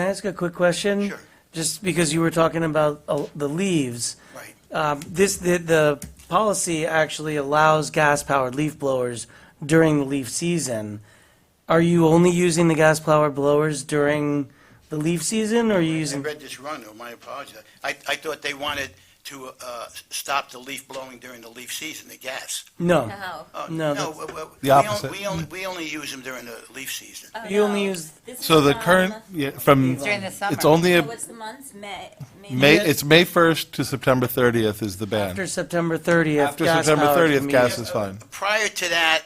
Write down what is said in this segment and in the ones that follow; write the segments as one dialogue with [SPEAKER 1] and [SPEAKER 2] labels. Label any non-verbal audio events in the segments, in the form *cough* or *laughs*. [SPEAKER 1] Can I ask a quick question?
[SPEAKER 2] Sure.
[SPEAKER 1] Just because you were talking about uh, the leaves.
[SPEAKER 2] Right.
[SPEAKER 1] Um, This, the, the policy actually allows gas-powered leaf blowers during the leaf season. Are you only using the gas-powered blowers during the leaf season, or are you
[SPEAKER 2] I
[SPEAKER 1] using?
[SPEAKER 2] read this wrong, though, my apologies. I, I thought they wanted to uh, s- stop the leaf blowing during the leaf season, the gas.
[SPEAKER 1] No.
[SPEAKER 3] No.
[SPEAKER 2] Oh,
[SPEAKER 1] No,
[SPEAKER 2] No,
[SPEAKER 1] that's-
[SPEAKER 2] we- we-
[SPEAKER 4] The
[SPEAKER 2] we on-
[SPEAKER 4] opposite.
[SPEAKER 2] We only, we only use them during the leaf season.
[SPEAKER 3] Oh,
[SPEAKER 1] You only
[SPEAKER 3] no.
[SPEAKER 1] use-
[SPEAKER 3] This
[SPEAKER 4] So
[SPEAKER 3] is,
[SPEAKER 4] the
[SPEAKER 3] um,
[SPEAKER 4] current, yeah, from,
[SPEAKER 5] During the summer.
[SPEAKER 4] it's only,
[SPEAKER 3] So
[SPEAKER 4] a
[SPEAKER 3] what's the month? May?
[SPEAKER 4] May, it's May 1st to September 30th is the
[SPEAKER 1] After
[SPEAKER 4] ban.
[SPEAKER 1] September 30th.
[SPEAKER 4] After September
[SPEAKER 1] gas-powered
[SPEAKER 4] 30th,
[SPEAKER 1] means-
[SPEAKER 4] gas is fine.
[SPEAKER 2] Prior to that,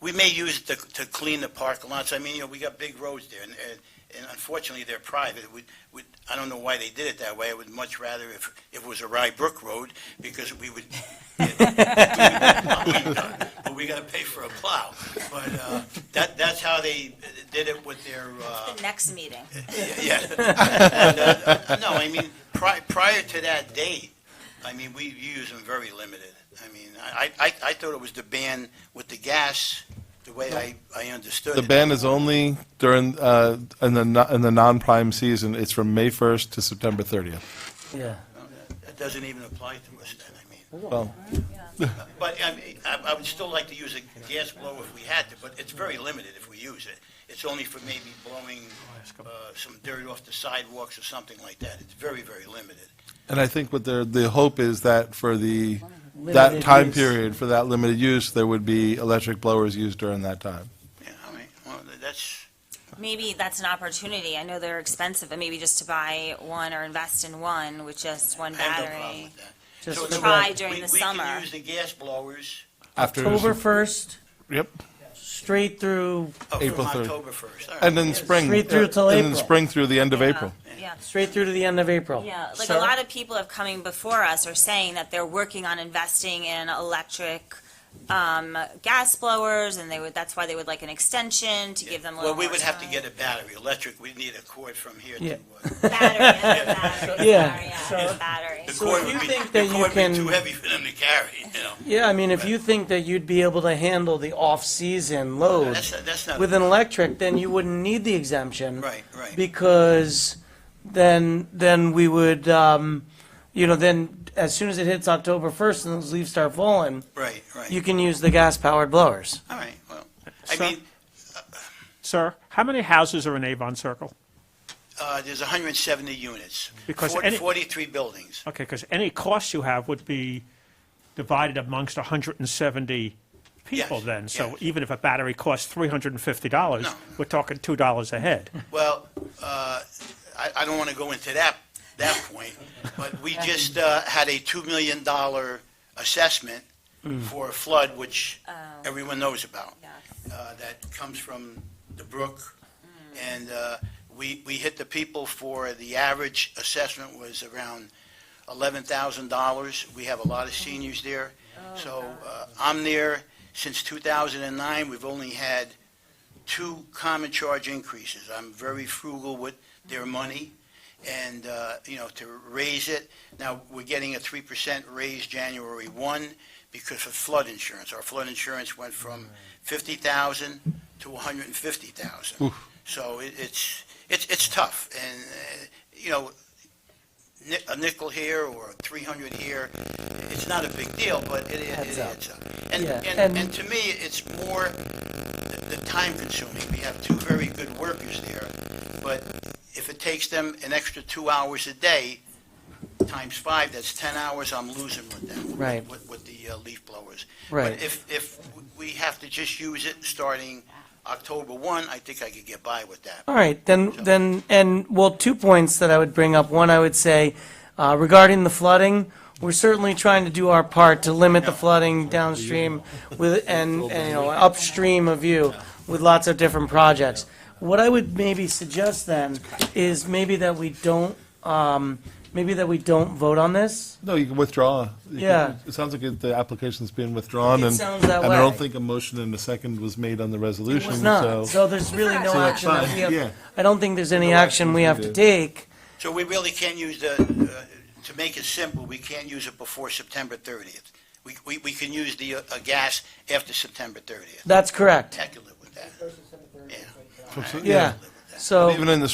[SPEAKER 2] we may use it to, to clean the park lots. I mean, you know, we got big roads there, and, and- and unfortunately, they're private. We, we, I don't know why they did it that way. I would much rather if, if it was a Rye Brook Road, because we would. But we gotta pay for a plow. But, uh, that, that's how they did it with their, uh,
[SPEAKER 3] The next meeting.
[SPEAKER 2] yeah. *laughs* And, uh, No, I mean, pri- prior to that date, I mean, we use them very limited. I mean, I, I, I thought it was the ban with the gas, the way I, I understood
[SPEAKER 4] The
[SPEAKER 2] it.
[SPEAKER 4] ban is only during, uh, in the, no- in the non-prime season, it's from May 1st to September 30th.
[SPEAKER 1] Yeah.
[SPEAKER 2] That doesn't even apply to us then, I mean.
[SPEAKER 4] Well,
[SPEAKER 2] But I mean, I, I would still like to use a gas blower if we had to, but it's very limited if we use it. It's only for maybe blowing, uh, some dirt off the sidewalks or something like that. It's very, very limited.
[SPEAKER 4] and I think what the, the hope is that for the,
[SPEAKER 1] Limited
[SPEAKER 4] that time
[SPEAKER 1] use.
[SPEAKER 4] period, for that limited use, there would be electric blowers used during that time.
[SPEAKER 2] Yeah, I mean, well, that's,
[SPEAKER 3] Maybe that's an opportunity. I know they're expensive, but maybe just to buy one or invest in one with just one
[SPEAKER 2] I have no problem
[SPEAKER 3] battery. Uh,
[SPEAKER 2] with that.
[SPEAKER 1] Just
[SPEAKER 2] So
[SPEAKER 1] for the-
[SPEAKER 3] Try during
[SPEAKER 2] we-
[SPEAKER 3] the
[SPEAKER 2] We
[SPEAKER 3] summer.
[SPEAKER 2] can use the gas blowers.
[SPEAKER 4] After-
[SPEAKER 1] October 1st,
[SPEAKER 4] Yep.
[SPEAKER 1] straight through,
[SPEAKER 2] oh, from
[SPEAKER 4] April third.
[SPEAKER 2] October 1st. all right.
[SPEAKER 4] And then spring.
[SPEAKER 1] Straight through till
[SPEAKER 4] And
[SPEAKER 1] April.
[SPEAKER 4] then spring through the end of April.
[SPEAKER 3] Yeah.
[SPEAKER 1] straight through to the end of April.
[SPEAKER 3] Yeah, like a
[SPEAKER 1] So-
[SPEAKER 3] lot of people have coming before us are saying that they're working on investing in electric, um, gas blowers and they would, that's why they would like an extension to give them a
[SPEAKER 2] Well,
[SPEAKER 3] little more
[SPEAKER 2] we would have to
[SPEAKER 3] time.
[SPEAKER 2] get a battery, electric, we'd need a cord from here to.
[SPEAKER 1] Yeah. *laughs*
[SPEAKER 2] uh, *laughs*
[SPEAKER 3] Battery, battery,
[SPEAKER 1] Yeah.
[SPEAKER 3] sorry, yeah, battery.
[SPEAKER 2] The
[SPEAKER 1] So
[SPEAKER 2] cord
[SPEAKER 1] if
[SPEAKER 2] would
[SPEAKER 1] you
[SPEAKER 2] be,
[SPEAKER 1] think
[SPEAKER 2] the
[SPEAKER 1] that you
[SPEAKER 2] cord would
[SPEAKER 1] can-
[SPEAKER 2] be too heavy for them to carry, you know?
[SPEAKER 1] Yeah, I mean, if you think that you'd be able to handle the off-season load
[SPEAKER 2] That's, not- that's not.
[SPEAKER 1] Oh, with an electric, then you wouldn't need the exemption.
[SPEAKER 2] Right, right.
[SPEAKER 1] Because then, then we would, um, you know, then as soon as it hits October first and those leaves start falling,
[SPEAKER 2] Right, right.
[SPEAKER 1] you can use the gas-powered blowers.
[SPEAKER 2] All right, well, I
[SPEAKER 6] So-
[SPEAKER 2] mean,
[SPEAKER 6] Sir, how many houses are in Avon Circle?
[SPEAKER 2] uh, there's 170 units.
[SPEAKER 6] Because
[SPEAKER 2] Fort-
[SPEAKER 6] any-
[SPEAKER 2] 43 buildings.
[SPEAKER 6] Okay, because any cost you have would be divided amongst 170 people
[SPEAKER 2] Yes,
[SPEAKER 6] then. So
[SPEAKER 2] yes.
[SPEAKER 6] even if a battery costs $350,
[SPEAKER 2] No.
[SPEAKER 6] we're talking $2 a head.
[SPEAKER 2] Well, uh, I, I don't want to go into that, that point, but we just uh, had a $2 million assessment for a flood, which everyone knows about. uh, that comes from the brook. And uh, we, we hit the people for, the average assessment was around $11,000. We have a lot of seniors there. So uh, I'm there since 2009. We've only had two common charge increases. I'm very frugal with their money and, uh, you know, to raise it. Now, we're getting a 3% raise January 1 because of flood insurance. Our flood insurance went from 50,000 to 150,000. So it- it's, it's, it's tough, and, uh, you know, ni- a nickel here or 300 here, it's not a big deal, but it, it
[SPEAKER 1] Adds
[SPEAKER 2] it
[SPEAKER 1] up.
[SPEAKER 2] adds up. And,
[SPEAKER 1] Yeah,
[SPEAKER 2] and,
[SPEAKER 1] and-
[SPEAKER 2] and to me, it's more the the time consuming. We have two very good workers there, but if it takes them an extra two hours a day, times five, that's 10 hours I'm losing with them.
[SPEAKER 1] Right.
[SPEAKER 2] With, with the uh, leaf blowers.
[SPEAKER 1] Right.
[SPEAKER 2] But if, if we have to just use it starting October 1, I think I could get by with that.
[SPEAKER 1] All right, then, then, and, well, two points that I would bring up. One, I would say, uh, regarding the flooding, we're certainly trying to do our part to limit the flooding downstream with, and, and, you know, upstream of you with lots of different projects. What I would maybe suggest then is maybe that we don't, um, maybe that we don't vote on this.
[SPEAKER 4] No, you can withdraw. You can-
[SPEAKER 1] Yeah.
[SPEAKER 4] It sounds like it- the application's been withdrawn,
[SPEAKER 1] It
[SPEAKER 4] and,
[SPEAKER 1] sounds that
[SPEAKER 4] and I
[SPEAKER 1] way.
[SPEAKER 4] don't think a motion and a second was made on the
[SPEAKER 1] It
[SPEAKER 4] resolution,
[SPEAKER 1] was
[SPEAKER 4] so.
[SPEAKER 1] not, so there's really no
[SPEAKER 4] So it's
[SPEAKER 1] action that we
[SPEAKER 4] fine, yeah.
[SPEAKER 1] have, I don't think there's any
[SPEAKER 4] No
[SPEAKER 1] action we
[SPEAKER 4] actions
[SPEAKER 1] have to
[SPEAKER 4] we did.
[SPEAKER 1] take.
[SPEAKER 2] So we really can't use the, uh, to make it simple, we can't use it before September 30th. We, we, we can use the, uh, uh, gas after September 30th.
[SPEAKER 1] That's correct,
[SPEAKER 2] I can live with that. Yeah.
[SPEAKER 4] So-
[SPEAKER 1] yeah. So.
[SPEAKER 4] Even in the